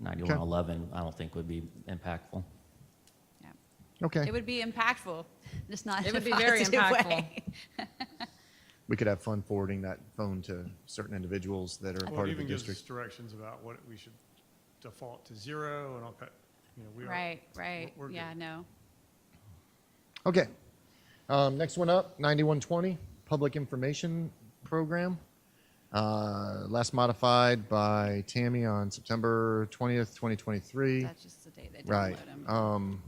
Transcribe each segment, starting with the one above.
9111, I don't think would be impactful. Yeah. Okay, It would be impactful, just not It in a would be very positive impactful. way. we could have fun forwarding that phone to certain individuals that are Well, part it of the even gives us district. directions about what we should default to zero and all cut, you know, we are. Right, right, we're- we're yeah, good. no. Okay. Um, next one up, 9120, Public Information Program. Uh, last modified by Tammy on September 20th, 2023. That's just the day they Right. download them. Um,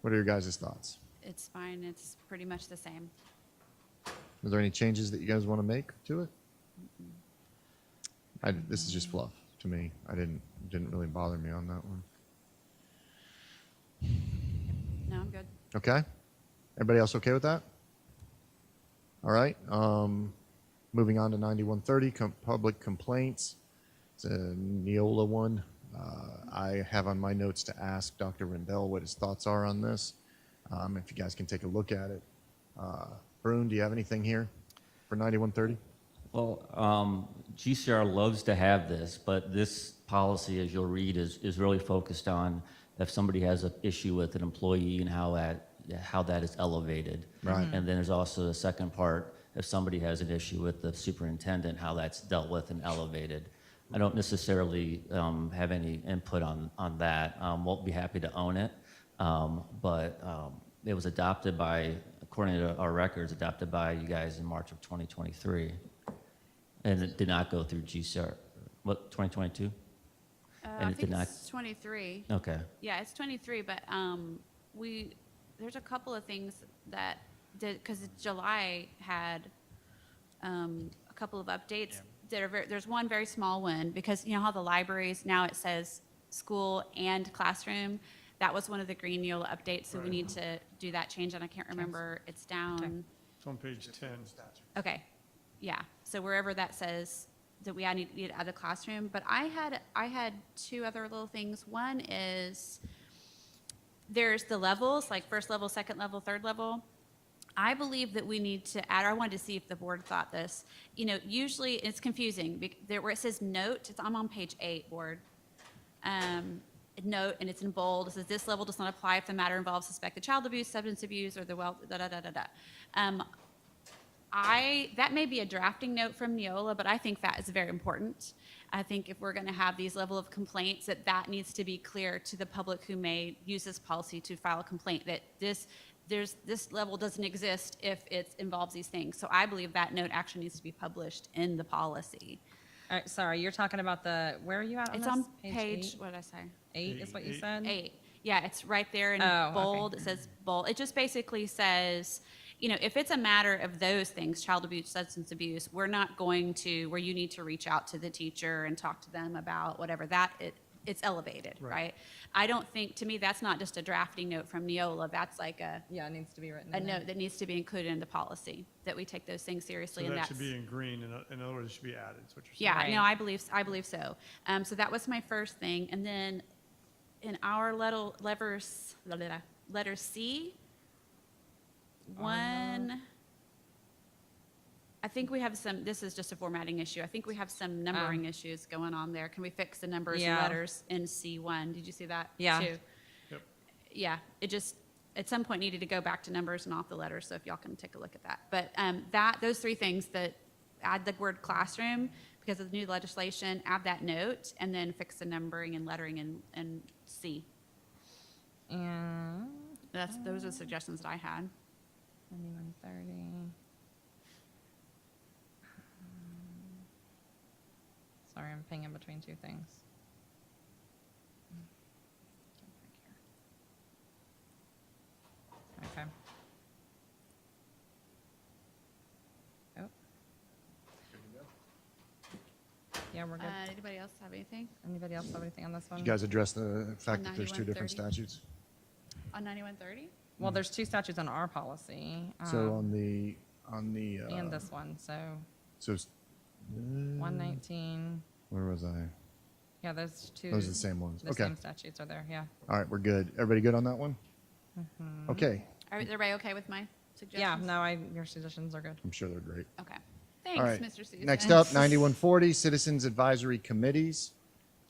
what are your guys' thoughts? It's fine, it's pretty much the same. Are there any changes that you guys want to make to it? I, this is just fluff to me. I didn't, didn't really bother me on that one. No, I'm good. Okay. Everybody else okay with that? All right. Um, moving on to 9130, com- public complaints. It's a Neola one. Uh, I have on my notes to ask Dr. Rendell what his thoughts are on this. Um, if you guys can take a look at it. Uh, Brune, do you have anything here for 9130? Well, um, GCR loves to have this, but this policy, as you'll read, is, is really focused on if somebody has an issue with an employee and how that, how that is elevated. Right. And then there's also the second part, if somebody has an issue with the superintendent, how that's dealt with and elevated. I don't necessarily um, have any input on, on that. Um, Won't be happy to own it, Um, but um, it was adopted by, according to our records, adopted by you guys in March of 2023. And it did not go through GCR, what, 2022? Uh, And I it did think not- it's 23. Okay, Yeah, it's 23, but um, we, there's a couple of things that did, because July had um, a couple of updates. That are very, there's one very small one, because you know how the libraries, now it says school and classroom? That was one of the Green Neola updates, so we Right. need to do that change, and I can't remember, it's down, It's on page ten. okay, yeah. So wherever that says that we need, need to add the classroom, but I had, I had two other little things. One is, there's the levels, like first level, second level, third level. I believe that we need to add, I wanted to see if the board thought this. You know, usually it's confusing, bec- there where it says note, it's, I'm on page eight, board. Um, note, and it's in bold, it says this level does not apply if the matter involves suspected child abuse, substance abuse, or the wealth, da, da, da, da, da. Um, I, that may be a drafting note from Neola, but I think that is very important. I think if we're going to have these level of complaints, that that needs to be clear to the public who may use this policy to file a complaint, that this, there's, this level doesn't exist if it involves these things. So I believe that note actually needs to be published in the policy. All right, sorry, you're talking about the, where are you at on It's this? on page, eight? what did I say? Eight is what you Eight. said? Eight. Yeah, it's right there in Oh, okay. bold. It says bold. It just basically says, you know, if it's a matter of those things, child abuse, substance abuse, we're not going to, where you need to reach out to the teacher and talk to them about whatever that, it, it's elevated, right? I don't think, to me, that's not just a drafting note from Neola. That's like a, Yeah, it needs to be written a Mm-hmm. in there. note that needs to be included in the policy, that we take those things So seriously and that that's. should be in green, and in other words, it should be added, is what you're saying. Yeah, no, Right. I believe, I believe so. Um, so that was my first thing. And then in our letter, levers, la, la, la, letter C, Uh-huh. one, I think we have some, this is just a formatting issue. I think we have some numbering issues going on there. Can we fix the numbers and Um, Yeah. letters in C1? Did you see that? Yeah. too? Yep. yeah, it just, at some point needed to go back to numbers and off the letters, so if y'all can take a look at that. But um, that, those three things that add the word classroom because of the new legislation, add that note, and then fix the numbering and lettering in, in C. And That's, those are the suggestions that I had. 9130. Sorry, I'm pinging between two things. Okay. Oh. Yeah, we're good. Uh, anybody else have anything Anybody else have anything on this Did one? you guys address the fact that there's two different 9130? statutes? on ninety-one thirty? Well, there's two statutes on our policy. So um, on the, on the, uh, And this one, so so s- one nineteen, where was I? yeah, those two. Those are the same ones. The Okay. same statutes are there, yeah. All right, we're good. Everybody good on that one? Okay, Are, everybody okay with my Yeah, suggestions? no, I, your suggestions are good. I'm sure they're great. Okay. All right. Thanks, Mr. Susan. Next up, 9140, Citizens Advisory Committees.